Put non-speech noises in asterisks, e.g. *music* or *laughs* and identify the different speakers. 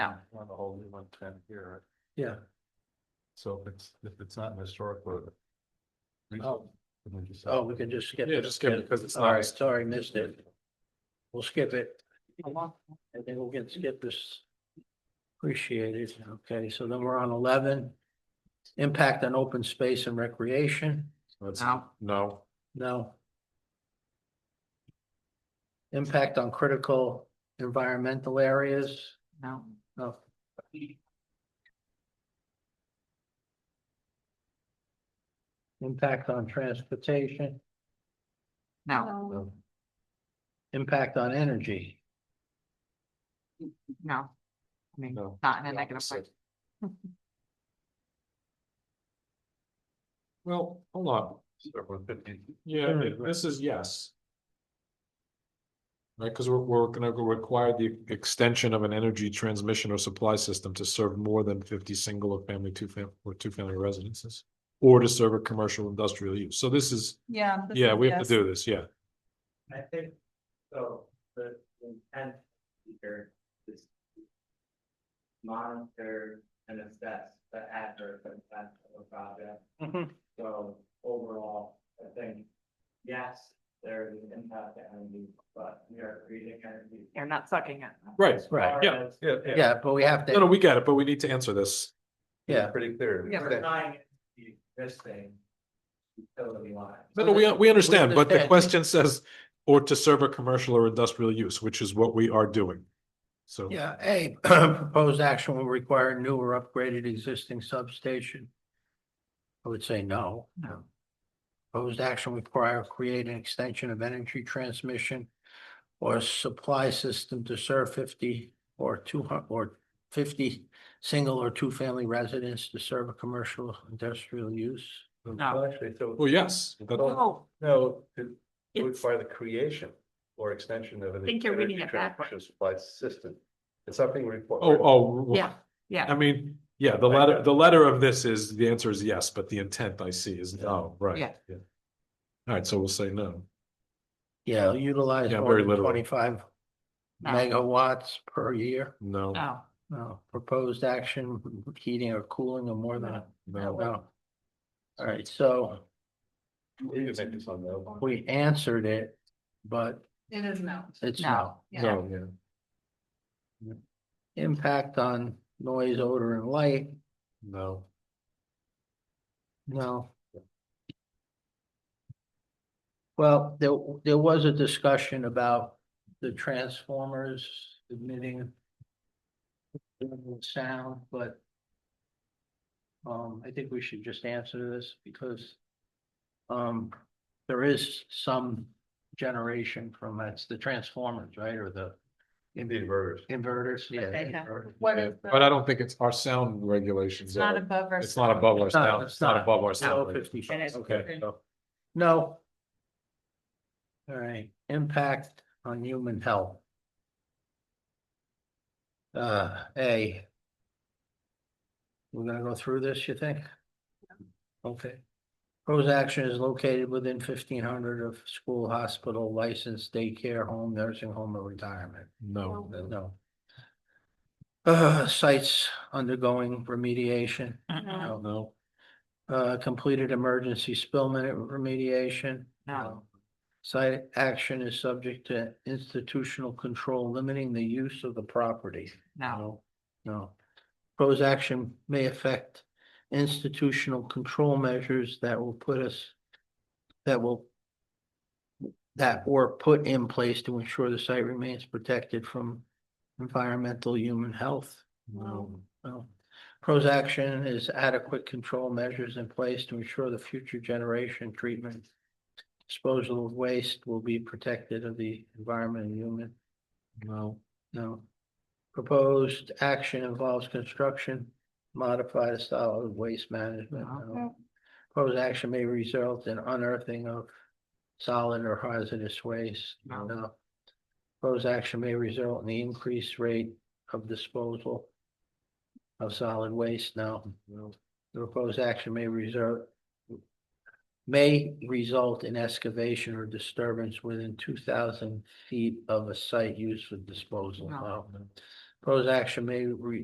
Speaker 1: No.
Speaker 2: On the whole, we want ten here.
Speaker 3: Yeah.
Speaker 2: So if it's, if it's not an historic road.
Speaker 3: Oh,
Speaker 2: then we just-
Speaker 3: oh, we can just skip.
Speaker 2: Yeah,
Speaker 3: it.
Speaker 2: just skip it, 'cause it's not-
Speaker 3: All right, sorry, missed it. We'll skip it. And then we'll get, skip this. Appreciate it. Okay, so then we're on eleven. Impact on open space and recreation.
Speaker 2: That's-
Speaker 1: No.
Speaker 2: No,
Speaker 3: No. Impact on critical environmental areas.
Speaker 1: No.
Speaker 3: No. Impact on transportation,
Speaker 1: No,
Speaker 2: no,
Speaker 3: impact on energy.
Speaker 1: no. I mean,
Speaker 2: no.
Speaker 1: not in a
Speaker 2: the
Speaker 1: negative way.
Speaker 2: opposite. *laughs* Well, hold on. Yeah,
Speaker 3: Very
Speaker 2: it-
Speaker 3: good.
Speaker 2: this is yes. Right, because we're, we're gonna go require the extension of an energy transmission or supply system to serve more than fifty single or family, two fam- or two family residences. Or to serve a commercial industrial use. So this is,
Speaker 4: Yeah. this
Speaker 2: yeah,
Speaker 4: is
Speaker 2: we have
Speaker 4: yes.
Speaker 2: to do this, yeah.
Speaker 5: I think, so, the intent here is. to Monitor and assess the adverse effect of a project, so overall, I think, yes, there is an impact to energy, but we are creating energy.
Speaker 1: You're not sucking it.
Speaker 2: Right,
Speaker 5: As
Speaker 3: right,
Speaker 5: far
Speaker 2: yeah,
Speaker 5: as-
Speaker 2: yeah, yeah.
Speaker 3: Yeah, but we have
Speaker 2: No, no,
Speaker 3: to,
Speaker 2: we get it, but we need to answer this.
Speaker 3: yeah,
Speaker 5: Pretty clear.
Speaker 1: Yeah.
Speaker 5: We're denying it to be this thing. Utility line.
Speaker 2: No, no, we, we understand, but the
Speaker 3: understand.
Speaker 2: question says, or to serve a commercial or industrial use, which is what we are doing. So.
Speaker 3: yeah, A, *clears throat* proposed action will require new or upgraded existing substation. I would say no.
Speaker 1: No.
Speaker 3: Proposed action require create an extension of energy transmission or supply system to serve fifty or two hundred or fifty single or two-family residents to serve a commercial industrial use.
Speaker 1: No.
Speaker 6: Actually, so,
Speaker 2: Well, yes, that-
Speaker 1: Oh,
Speaker 6: no, to
Speaker 1: It's-
Speaker 6: require the creation or extension of an.
Speaker 1: I think you're reading
Speaker 6: energy
Speaker 1: it backwards.
Speaker 6: transition Supply system. It's something required.
Speaker 2: oh, oh.
Speaker 1: Yeah, yeah.
Speaker 2: I mean, yeah, the letter, the letter of this is, the answer is yes, but the intent I see is no, right?
Speaker 1: Yeah.
Speaker 2: All right, so we'll say no.
Speaker 3: Yeah, utilize
Speaker 2: Yeah,
Speaker 3: more
Speaker 2: very
Speaker 3: than
Speaker 2: literal.
Speaker 3: twenty-five
Speaker 1: No.
Speaker 3: megawatts per year.
Speaker 2: No,
Speaker 1: no,
Speaker 3: No, uh, proposed action, heating or cooling of more than,
Speaker 2: no.
Speaker 3: no. All right, so
Speaker 6: You can make this on the-
Speaker 3: we answered it, but
Speaker 4: It is no.
Speaker 3: it's
Speaker 1: no.
Speaker 3: no.
Speaker 1: Yeah.
Speaker 2: No, yeah.
Speaker 3: Impact on noise, odor and light,
Speaker 2: No,
Speaker 3: no. Well, there, there was a discussion about the transformers emitting sound, but um, I think we should just answer this because um, there is some generation from, that's the transformers, right, or the
Speaker 6: Indeed, verse.
Speaker 3: inverters, yeah.
Speaker 4: Okay, yeah.
Speaker 3: inverters.
Speaker 4: What
Speaker 2: yeah,
Speaker 4: is
Speaker 2: but
Speaker 4: the,
Speaker 2: I don't think it's our sound regulations.
Speaker 4: it's not
Speaker 2: are-
Speaker 4: above our.
Speaker 2: It's not above our
Speaker 3: It's not-
Speaker 2: sound,
Speaker 3: it's
Speaker 2: it's not
Speaker 3: not.
Speaker 2: above our
Speaker 3: No,
Speaker 2: sound.
Speaker 3: 50.
Speaker 4: And it's-
Speaker 2: Okay,
Speaker 3: No. All right, impact on human health. Uh, A. We're gonna go through this, you think? Okay. Proposed action is located within fifteen hundred of school, hospital, licensed daycare, home, nursing home, or retirement.
Speaker 2: no,
Speaker 3: No. Uh, sites undergoing remediation.
Speaker 1: Mm-mm.
Speaker 3: No.
Speaker 2: no,
Speaker 3: Uh, completed emergency spill minute remediation.
Speaker 1: No.
Speaker 3: Site action is subject to institutional control limiting the use of the property.
Speaker 1: No,
Speaker 3: No. Proposed action may affect institutional control measures that will put us, that will that were put in place to ensure the site remains protected from environmental human health.
Speaker 2: no,
Speaker 3: Well, pros action is adequate control measures in place to ensure the future generation treatment. Disposal of waste will be protected of the environment and human,
Speaker 2: no,
Speaker 3: no. Proposed action involves construction, modified style of waste management, no. Proposed action may result in unearthing of solid or hazardous waste,
Speaker 1: No.
Speaker 3: no. Proposed action may result in the increased rate of disposal of solid waste, no.
Speaker 2: no,
Speaker 3: The proposed action may reserve. May result in excavation or disturbance within two thousand feet of a site used for disposal. No.
Speaker 1: No.
Speaker 3: Proposed action may re-